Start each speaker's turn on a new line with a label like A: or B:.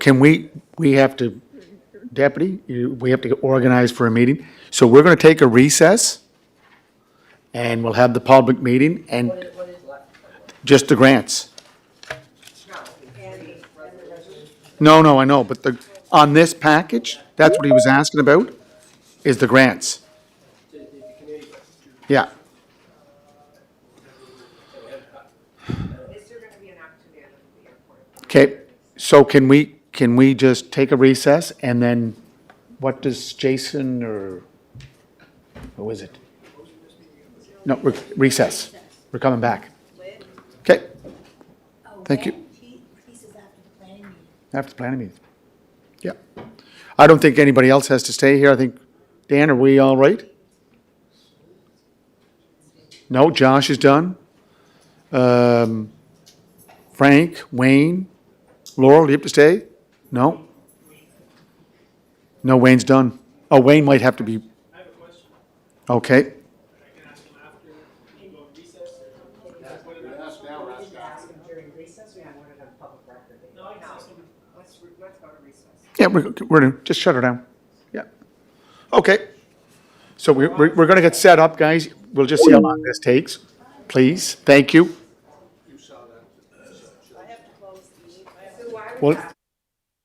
A: Can we, we have to, Deputy, you- we have to get organized for a meeting. So we're going to take a recess, and we'll have the public meeting, and
B: What is left?
A: just the grants.
B: No, and, and the resolution.
A: No, no, I know, but the, on this package, that's what he was asking about, is the grants. Yeah,
B: Is there gonna be an afternoon at the airport?
A: okay, so can we, can we just take a recess, and then what does Jason, or who is it? No, re- recess, we're coming back. Okay,
C: Oh,
A: Thank you.
C: Pieces after the planning meeting.
A: after the planning meeting. Yeah, I don't think anybody else has to stay here, I think, Dan, are we all right? No, Josh is done. Um, Frank, Wayne, Laurel, do you have to stay? No? No, Wayne's done. Oh, Wayne might have to be,
D: I have a question.
A: okay.
D: I can ask him after we go to recess. What did I-
B: We can ask them during recess, we have one of them public record.
D: No, I can ask him.
B: Let's, re- let's go to recess.
A: Yeah, we're, we're, gonna- just shut her down. Yeah. Okay. So we're, we're we're gonna get set up, guys. We'll just see how long this takes. Please, thank you.
B: So why would
A: Well,
B: that?